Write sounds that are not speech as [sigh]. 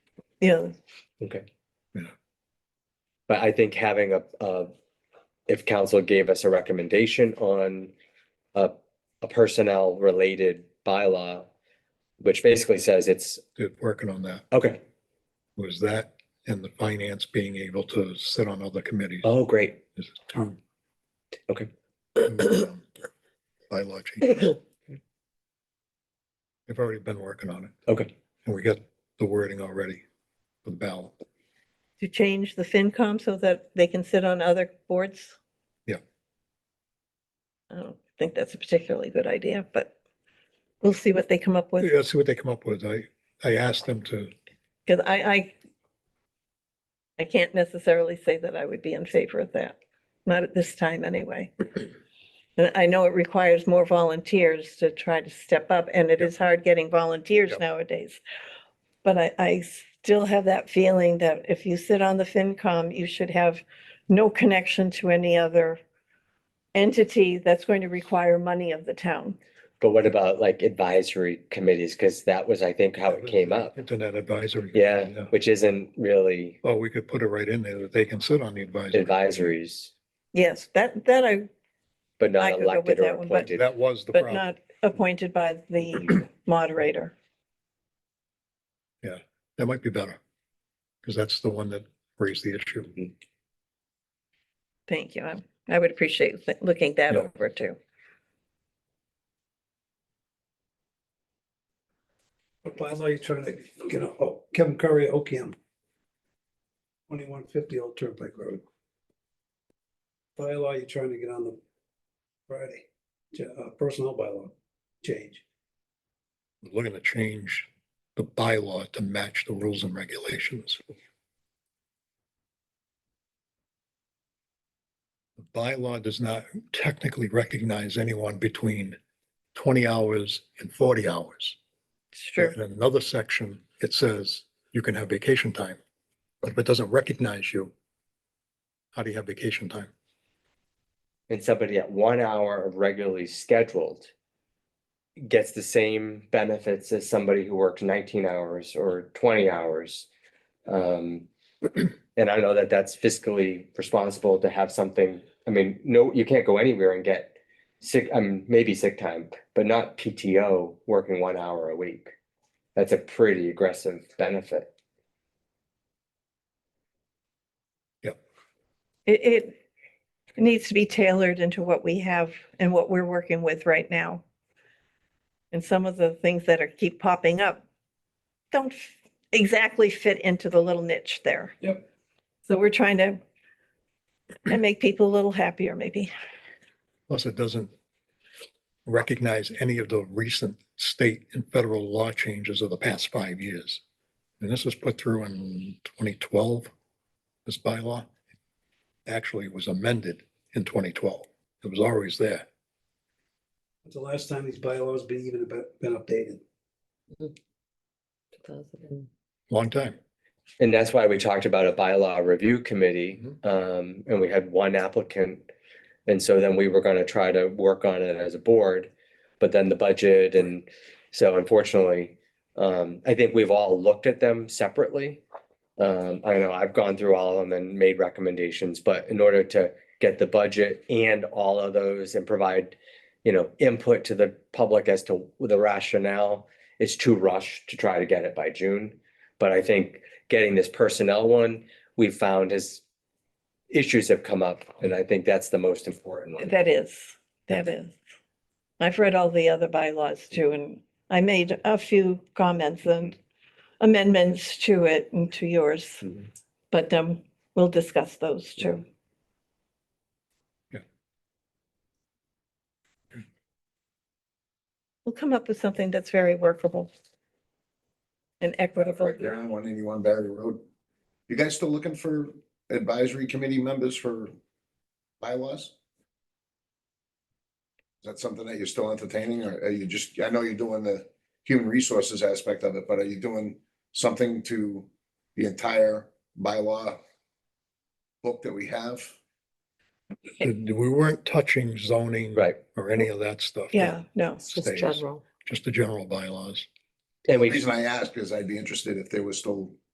Yeah, Okay. Yeah. But I think having a, uh, if council gave us a recommendation on a, a personnel related bylaw, which basically says it's, did working on that okay, was that and the finance being able to sit on other committees. oh, great. is two. Okay. Um, Biology. I've already been working on it Okay, and we got the wording already for the ballot. to change the FinCom so that they can sit on other boards? Yeah. I don't think that's a particularly good idea, but we'll see what they come up with, Let's see what they come up with. I, I asked them to, because I, I I can't necessarily say that I would be in favor of that, not at this time [clears throat] anyway. And I know it requires more volunteers to try to step up, and it Yep. is hard getting volunteers Yep. nowadays. But I, I still have that feeling that if you sit on the FinCom, you should have no connection to any other entity that's going to require money of the town. but what about like advisory committees? Cause that was, I think, how That it was came up. internet advisory. Yeah, which isn't really Well, we could put it right in there that they can sit on the advisory. advisories, Yes, that, that I, but I not could go with elected or that one, but- appointed. That was the but problem. not appointed by [clears throat] the moderator. That might be better. Because that's the one that raised the issue. Thank you. I- I would appreciate th- looking that Yeah. over too. What bylaw you trying to get a, oh, Kevin Curry, OCAM. Twenty-one fifty Old Turnpike Road. Bylaw you trying to get on the Friday, J- uh, personnel bylaw change. Looking to change the bylaw to match the rules and regulations. The Bylaw does not technically recognize anyone between twenty hours and forty hours. It's true. In another section, it says you can have vacation time, but if it doesn't recognize you, how do you have vacation time? and somebody at one hour of regularly scheduled gets the same benefits as somebody who worked nineteen hours or twenty hours. Um, and I know that that's fiscally responsible to have something, I mean, no, you can't go anywhere and get sick, I mean, maybe sick time, but not PTO working one hour a week. That's a pretty aggressive benefit. It, it needs to be tailored into what we have and what we're working with right now. And some of the things that are keep popping up don't f- exactly fit into the little niche there. Yep. So we're trying to and make people a little happier maybe. Plus, it doesn't recognize any of the recent state and federal law changes of the past five years. And this was put through in twenty twelve, this bylaw. Actually, it was amended in twenty twelve. It was always there. When's the last time these bylaws been even about- been updated? Long time. And that's why we talked about a bylaw review committee, Mhm. um, and we had one applicant. And so then we were gonna try to work on it as a board, but then the budget and so unfortunately. Um, I think we've all looked at them separately. Um, I know I've gone through all of them and made recommendations, but in order to get the budget and all of those and provide. You know, input to the public as to the rationale, it's too rushed to try to get it by June. But I think getting this personnel one, we found is issues have come up, and I think that's the most important one. That is, that is. I've read all the other bylaws too, and I made a few comments and amendments to it and to yours, Mhm. but um, we'll discuss those too. Yeah. We'll come up with something that's very workable and equitable. Right there on one eighty-one Barry Road. You guys still looking for advisory committee members for bylaws? Is that something that you're still entertaining or are you just, I know you're doing the human resources aspect of it, but are you doing something to the entire bylaw book that we have? We weren't touching zoning Right, or any of that stuff. Yeah, no, Stays. Just the general bylaws. and The we, reason I ask is I'd be interested if there was still